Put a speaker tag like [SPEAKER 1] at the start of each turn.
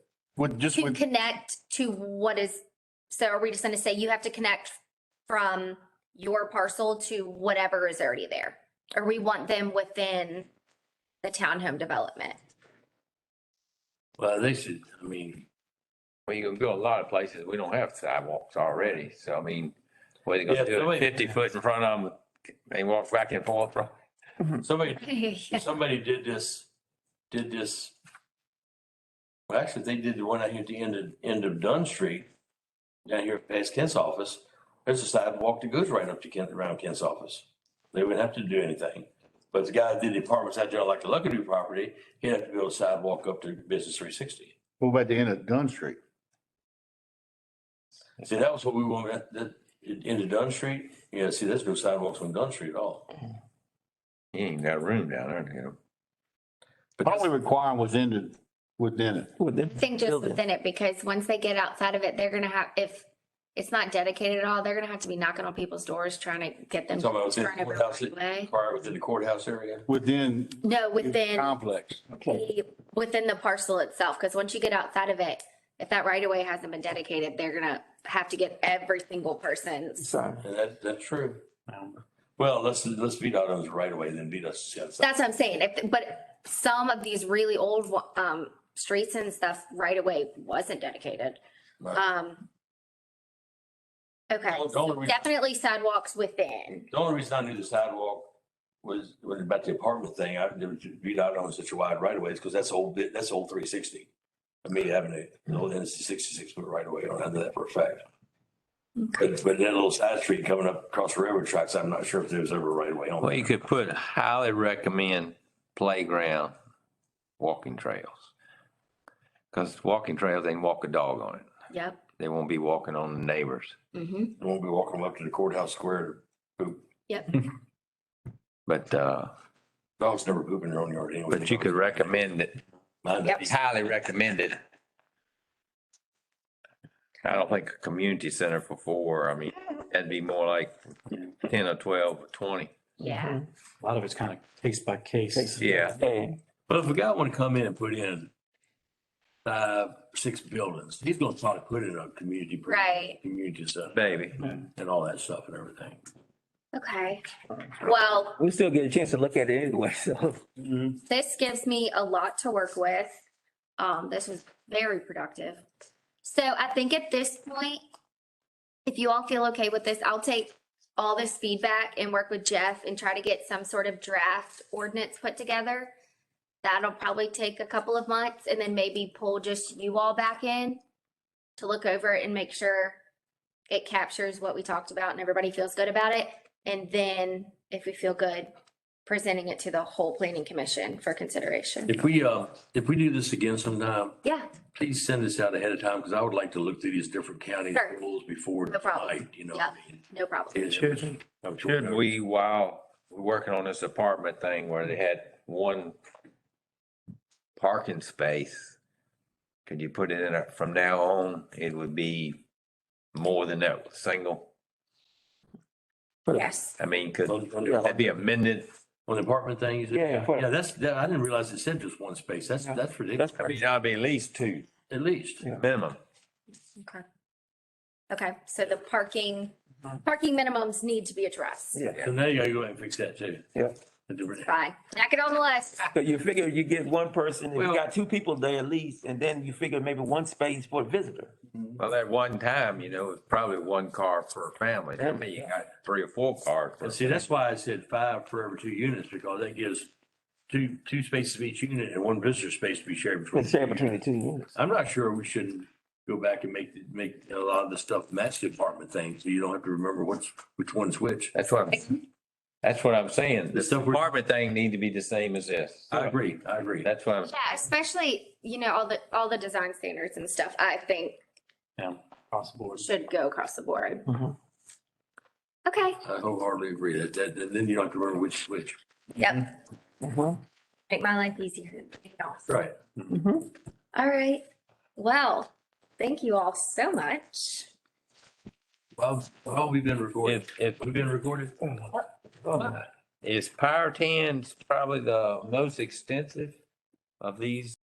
[SPEAKER 1] With just
[SPEAKER 2] can
[SPEAKER 1] with,
[SPEAKER 2] connect to what is, so are we just gonna say you have to connect from your parcel to whatever is already there? Or we want them within the townhome development?
[SPEAKER 3] Well, they should, I mean,
[SPEAKER 4] Well, you can go a lot of places. We don't have sidewalks already, so I mean, what are you
[SPEAKER 3] Yeah,
[SPEAKER 4] gonna do?
[SPEAKER 3] somebody-
[SPEAKER 4] it? Fifty foot in front of them and walk back and forth? from-
[SPEAKER 3] somebody,
[SPEAKER 2] Yes.
[SPEAKER 3] somebody did this, did this. Well, actually, they did the one out here at the end of, end of Dunn Street, down here past Kent's office. There's a sidewalk that goes right up to Kent, around Kent's office. They wouldn't have to do anything. But the guy that did the apartments out there, like the Luckadoo property, he'd have to build a sidewalk up to Business three sixty.
[SPEAKER 1] what about the end of Dunn Street?
[SPEAKER 3] See, that was what we wanted, that- that, into Dunn Street. Yeah, see, there's no sidewalks on Dunn Street at all.
[SPEAKER 4] You ain't got room down there, you know.
[SPEAKER 3] But
[SPEAKER 1] All we
[SPEAKER 3] that's-
[SPEAKER 1] require was ended within it.
[SPEAKER 2] I think just within it, because once they get outside of it, they're gonna have, if it's not dedicated at all, they're gonna have to be knocking on people's doors, trying to get them.
[SPEAKER 3] Talking about within
[SPEAKER 2] turn over
[SPEAKER 3] the courthouse,
[SPEAKER 2] right away.
[SPEAKER 3] required within the courthouse area.
[SPEAKER 1] Within
[SPEAKER 2] No,
[SPEAKER 1] the
[SPEAKER 2] within.
[SPEAKER 1] complex.
[SPEAKER 2] the- within the parcel itself, because once you get outside of it, if that right of way hasn't been dedicated, they're gonna have to get every single person's.
[SPEAKER 3] And that, that's true. Well, let's, let's beat out those right away, then beat us. to the outside.
[SPEAKER 2] That's what I'm saying, if, but some of these really old, um, streets and stuff, right of way wasn't dedicated,
[SPEAKER 3] Right.
[SPEAKER 2] um. Okay,
[SPEAKER 3] Well, don't
[SPEAKER 2] so
[SPEAKER 3] we-
[SPEAKER 2] definitely sidewalks within,
[SPEAKER 3] The only reason I knew the sidewalk was, was about the apartment thing. I didn't beat out on such a wide right away is because that's the whole bit, that's the whole three sixty. Amelia Avenue, the whole it's a sixty-six foot right away. I don't know that for a fact. But, but that little side street coming up across the railroad tracks, I'm not sure if there's ever a right away on
[SPEAKER 4] Well,
[SPEAKER 3] there.
[SPEAKER 4] you could put highly recommend playground, walking trails. Cause walking trails, they can walk a dog on it.
[SPEAKER 2] yep.
[SPEAKER 4] They won't be walking on the neighbors.
[SPEAKER 2] Mhm.
[SPEAKER 3] You won't be walking up to the courthouse square. to poop.
[SPEAKER 4] But, uh,
[SPEAKER 3] Dogs never poop in their own yard anyway.
[SPEAKER 4] but you could recommend it,
[SPEAKER 3] Mine
[SPEAKER 2] Yep.
[SPEAKER 3] does.
[SPEAKER 4] highly recommended. I don't think a community center for four, I mean, that'd be more like ten or twelve or twenty.
[SPEAKER 2] Yeah,
[SPEAKER 3] Mm-hmm.
[SPEAKER 5] A lot of it's kind of case by case.
[SPEAKER 4] Yeah.
[SPEAKER 3] But if a guy want to come in and put in five, six buildings, he's going to try to put in a community. pre-
[SPEAKER 2] Right.
[SPEAKER 3] Community center
[SPEAKER 4] Baby.
[SPEAKER 3] and all that stuff and everything.
[SPEAKER 2] okay, well,
[SPEAKER 6] We still get a chance to look at it anyway, so.
[SPEAKER 2] this gives me a lot to work with. Um, this was very productive. So I think at this point, if you all feel okay with this, I'll take all this feedback and work with Jeff and try to get some sort of draft ordinance put together. That'll probably take a couple of months and then maybe pull just you all back in to look over it and make sure it captures what we talked about and everybody feels good about it. And then if we feel good, presenting it to the whole planning commission for consideration.
[SPEAKER 3] If we, uh, if we do this again sometime,
[SPEAKER 2] Yeah,
[SPEAKER 3] please send this out ahead of time because I would like to look through these different county
[SPEAKER 2] Sure.
[SPEAKER 3] rules before
[SPEAKER 2] No problem.
[SPEAKER 3] tonight, you know.
[SPEAKER 2] Yeah. no problem.
[SPEAKER 3] Should.
[SPEAKER 4] Should we, while we're working on this apartment thing where they had one parking space, could you put it in a, from now on, it would be more than that single?
[SPEAKER 2] Yes.
[SPEAKER 4] I mean, could
[SPEAKER 3] On on
[SPEAKER 4] that
[SPEAKER 3] the
[SPEAKER 4] be amended?
[SPEAKER 3] on the apartment thing, is it?
[SPEAKER 6] Yeah, for-
[SPEAKER 3] Yeah, that's, that- I didn't realize it said just one space. That's,
[SPEAKER 6] Yeah.
[SPEAKER 3] that's ridiculous,
[SPEAKER 6] That's
[SPEAKER 4] I mean, that'd be at least two,
[SPEAKER 3] at least.
[SPEAKER 4] minimum.
[SPEAKER 2] Okay. Okay, so the parking,
[SPEAKER 5] Mm-hmm.
[SPEAKER 2] parking minimums need to be addressed.
[SPEAKER 6] Yeah.
[SPEAKER 3] So now you gotta go ahead and fix that too.
[SPEAKER 6] Yeah.
[SPEAKER 2] Fine, knock it on the list.
[SPEAKER 6] So you figure you get one person, if
[SPEAKER 4] Well-
[SPEAKER 6] you got two people there at least, and then you figure maybe one space for a visitor.
[SPEAKER 4] Well, at one time, you know, it's probably one car per family. I mean, you got three or four cars. per-
[SPEAKER 3] And see, that's why I said five for every two units, because that gives two, two spaces of each unit and one visitor space to be shared between.
[SPEAKER 6] Let's share between the two units.
[SPEAKER 3] I'm not sure we shouldn't go back and make, make a lot of the stuff match the apartment thing, so you don't have to remember which, which one's which.
[SPEAKER 4] That's what, I'm- that's what I'm saying.
[SPEAKER 3] The
[SPEAKER 4] This
[SPEAKER 3] stuff we're-
[SPEAKER 4] apartment thing need to be the same as this.
[SPEAKER 3] I agree, I agree.
[SPEAKER 4] That's what I'm
[SPEAKER 2] Yeah, especially, you know, all the, all the design standards and stuff, I think
[SPEAKER 5] Yeah, across the board. Mm-hmm.
[SPEAKER 2] should go across the board.
[SPEAKER 6] Mhm.
[SPEAKER 2] Okay,
[SPEAKER 3] I wholeheartedly agree that, that, and then you don't have to remember which, which.
[SPEAKER 2] yep,
[SPEAKER 5] Mm-hmm.
[SPEAKER 6] Mhm.
[SPEAKER 2] make my life easier.
[SPEAKER 3] Right.
[SPEAKER 2] All right, well, thank you all so much.
[SPEAKER 3] Well, well, we've been recorded.
[SPEAKER 4] If, if, Oh,
[SPEAKER 3] We've been recorded.
[SPEAKER 4] is Power Ten's probably the most extensive of these